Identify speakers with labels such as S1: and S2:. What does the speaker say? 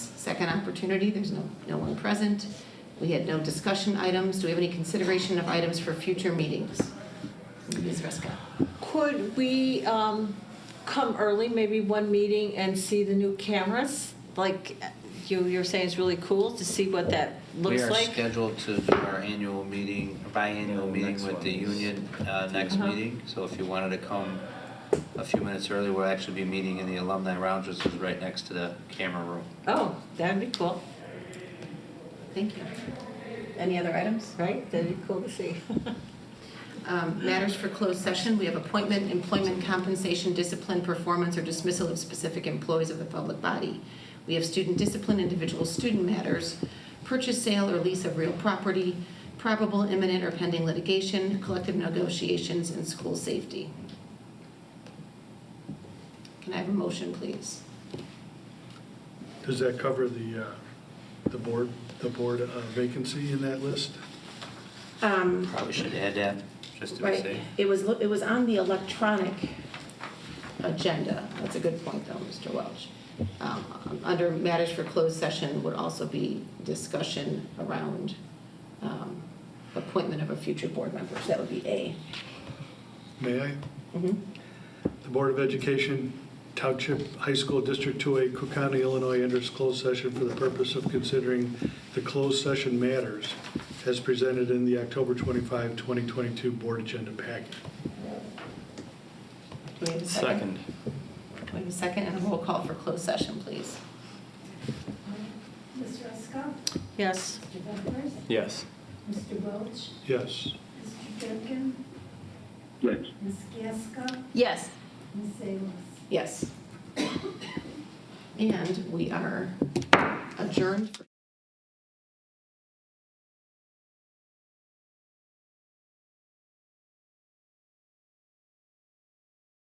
S1: second opportunity, there's no, no one present. We had no discussion items, do we have any consideration of items for future meetings? Ms. Ruska?
S2: Could we um, come early, maybe one meeting, and see the new cameras? Like you, you're saying it's really cool to see what that looks
S3: We are
S2: like?
S3: scheduled to do our annual meeting, biannual
S4: Yeah,
S3: meeting
S4: next
S3: with
S4: one
S3: the
S4: is-
S3: union, uh, next
S2: Uh-huh.
S3: meeting. So if you wanted to come a few minutes early, we'll actually be meeting in the alumni lounge, which is right next to the camera room.
S2: Oh, that'd be cool,
S1: Thank you. Any other items?
S2: right? That'd be cool to see.
S1: Um, Matters for closed session, we have appointment, employment compensation, discipline, performance, or dismissal of specific employees of the public body. We have student discipline, individual student matters, purchase, sale, or lease of real property, probable imminent or pending litigation, collective negotiations, and school safety. Can I have a motion, please?
S5: Does that cover the, uh, the board, the board uh, vacancy in that list?
S6: Um,
S3: Probably should add that, just to be
S6: right,
S3: safe.
S6: it was, it was on the electronic,
S1: agenda. That's a good point, though, Mr. Welch. Um, Under matters for closed session would also be discussion around um, appointment of a future board member, so that would be A. Mm-hmm.
S5: May I? The Board of Education Township High School District 2A, Cook County, Illinois enters closed session for the purpose of considering the closed session matters as presented in the October 25, 2022 Board Agenda Packet.
S1: Do we have a second? Do we have a second and a roll call for closed session, please?
S7: Mr. Ruska?
S2: Yes.
S7: Mr. Bumpers?
S4: Yes.
S7: Mr. Welch?
S5: Yes.
S7: Mr. Durkin?
S4: Yes.
S7: Ms. Gasko?
S1: Yes.
S7: Ms. Salas?
S1: Yes. And we are adjourned. for-